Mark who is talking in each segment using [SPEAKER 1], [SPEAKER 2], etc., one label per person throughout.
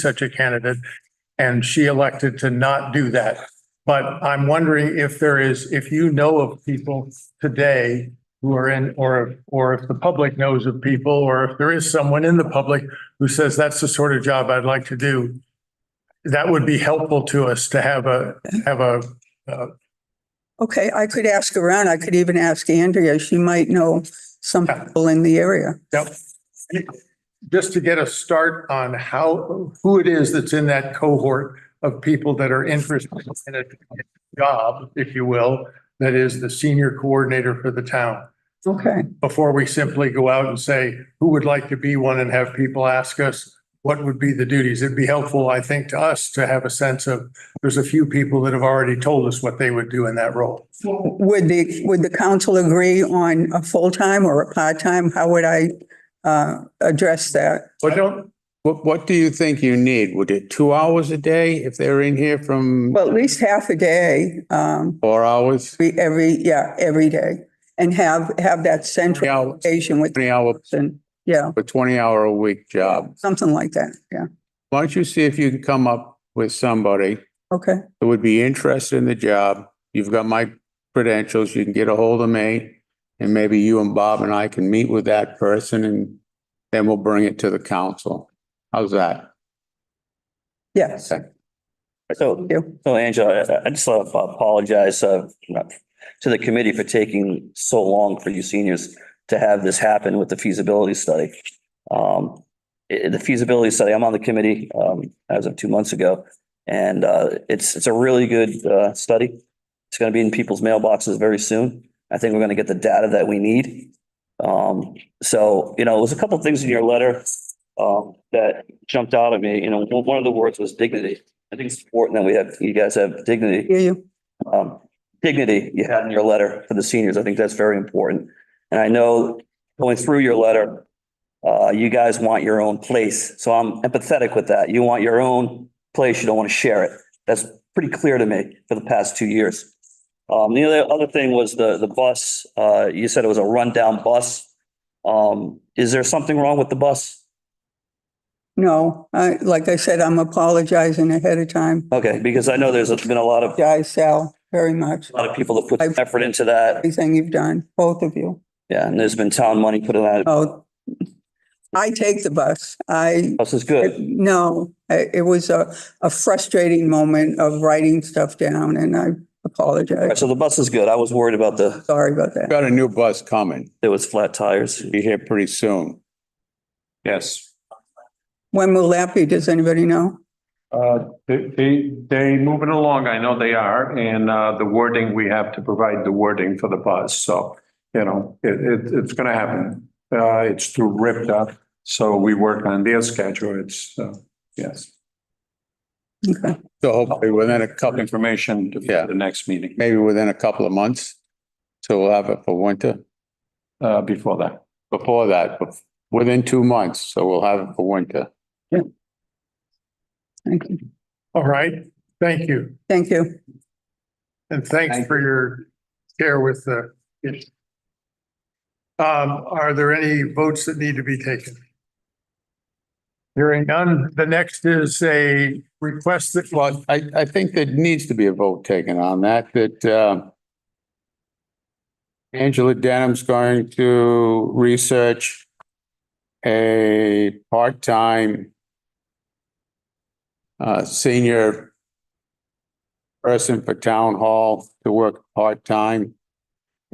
[SPEAKER 1] such a candidate. And she elected to not do that. But I'm wondering if there is, if you know of people today who are in, or, or if the public knows of people, or if there is someone in the public who says, that's the sort of job I'd like to do. That would be helpful to us to have a, have a,
[SPEAKER 2] Okay, I could ask around. I could even ask Andrea. She might know some
[SPEAKER 1] Yeah.
[SPEAKER 2] people in the area.
[SPEAKER 1] just to get a start on how, who it is that's in that cohort of people that are interested in a job, if you will, that is the senior coordinator for the town.
[SPEAKER 2] Okay,
[SPEAKER 1] before we simply go out and say, who would like to be one and have people ask us what would be the duties? It'd be helpful, I think, to us to have a sense of, there's a few people that have already told us what they would do in that role.
[SPEAKER 2] would the, would the council agree on a full-time or a part-time? How would I uh, address that?
[SPEAKER 1] But don't,
[SPEAKER 3] What, what do you think you need? Would it two hours a day if they're in here from
[SPEAKER 2] Well, at least half a day, um,
[SPEAKER 3] four hours?
[SPEAKER 2] be every, yeah, every day. And have, have that
[SPEAKER 3] Three
[SPEAKER 2] central
[SPEAKER 3] hours,
[SPEAKER 2] station with,
[SPEAKER 3] twenty hour,
[SPEAKER 2] and, yeah,
[SPEAKER 3] a twenty hour a week job.
[SPEAKER 2] something like that. Yeah,
[SPEAKER 3] Why don't you see if you can come up with somebody
[SPEAKER 2] okay,
[SPEAKER 3] that would be interested in the job? You've got my credentials, you can get a hold of me. And maybe you and Bob and I can meet with that person and then we'll bring it to the council. How's that?
[SPEAKER 2] yes.
[SPEAKER 4] So,
[SPEAKER 2] Yeah.
[SPEAKER 4] so Angela, I- I- I just want to apologize uh, to the committee for taking so long for you seniors to have this happen with the feasibility study. Um, i- the feasibility study, I'm on the committee, um, as of two months ago. And, uh, it's, it's a really good, uh, study. It's going to be in people's mailboxes very soon. I think we're going to get the data that we need. Um, so, you know, it was a couple of things in your letter, um, that jumped out at me. You know, one of the words was dignity. I think it's important that we have, you guys have dignity,
[SPEAKER 2] Hear you?
[SPEAKER 4] um, dignity you had in your letter for the seniors. I think that's very important. And I know going through your letter, uh, you guys want your own place. So I'm empathetic with that. You want your own place. You don't want to share it. That's pretty clear to me for the past two years. Um, the other, other thing was the, the bus, uh, you said it was a rundown bus. Um, is there something wrong with the bus?
[SPEAKER 2] No, I, like I said, I'm apologizing ahead of time.
[SPEAKER 4] Okay, because I know there's been a lot of, a
[SPEAKER 2] Yeah, I Sal, very much.
[SPEAKER 4] lot of people that put effort into that.
[SPEAKER 2] Everything you've done, both of you.
[SPEAKER 4] Yeah, and there's been town money put in that.
[SPEAKER 2] Oh, I take the bus. I,
[SPEAKER 4] This is good.
[SPEAKER 2] no, I- it was a, a frustrating moment of writing stuff down and I
[SPEAKER 4] All right,
[SPEAKER 2] apologize.
[SPEAKER 4] so the bus is good. I was worried about the,
[SPEAKER 2] Sorry about that.
[SPEAKER 3] Got a new bus coming.
[SPEAKER 4] there was flat tires.
[SPEAKER 3] Be here pretty soon. Yes.
[SPEAKER 2] When will that be? Does anybody know?
[SPEAKER 5] Uh, They, they, they moving along, I know they are, and uh, the wording, we have to provide the wording for the bus, so, you know, it, it, it's gonna happen. Uh, It's through RIPTA, so we work on their schedule, it's, uh, yes.
[SPEAKER 2] Okay,
[SPEAKER 3] So hopefully within a couple,
[SPEAKER 5] Information
[SPEAKER 3] Yeah.
[SPEAKER 5] for the next meeting,
[SPEAKER 3] maybe within a couple of months. So we'll have it for winter,
[SPEAKER 5] uh, before that.
[SPEAKER 3] before that, bef- within two months, so we'll have it for winter.
[SPEAKER 2] thank you.
[SPEAKER 1] all right, thank you.
[SPEAKER 2] Thank you.
[SPEAKER 1] And thanks for your care with the issue. Um, are there any votes that need to be taken? Hearing none, the next is a request that,
[SPEAKER 3] Well, I, I think there needs to be a vote taken on that, that, uh, Angela Denham's going to research a part-time uh, senior person for town hall to work part-time.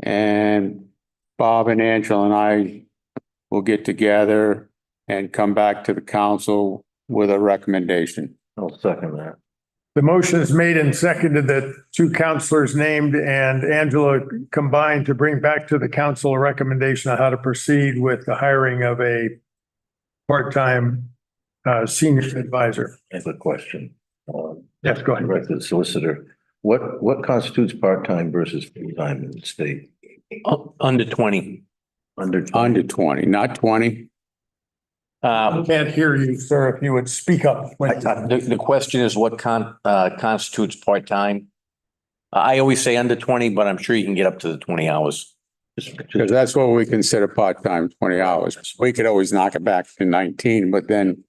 [SPEAKER 3] And Bob and Angela and I will get together and come back to the council with a recommendation.
[SPEAKER 6] I'll second that.
[SPEAKER 1] the motion is made and seconded that two counselors named and Angela combined to bring back to the council a recommendation on how to proceed with the hiring of a part-time uh, senior advisor.
[SPEAKER 6] I have a question. Um,
[SPEAKER 1] Yes, go ahead.
[SPEAKER 6] Direct to the solicitor. What, what constitutes part-time versus full-time in the state?
[SPEAKER 7] U- Oh, Under twenty.
[SPEAKER 6] Under.
[SPEAKER 3] Under twenty, not twenty.
[SPEAKER 7] Uh,
[SPEAKER 1] Can't hear you, sir, if you would speak up. when-
[SPEAKER 7] The, the question is what con, uh, constitutes part-time? I always say under twenty, but I'm sure you can get up to the twenty hours.
[SPEAKER 3] Because that's what we consider part-time, twenty hours. We could always knock it back to nineteen, but then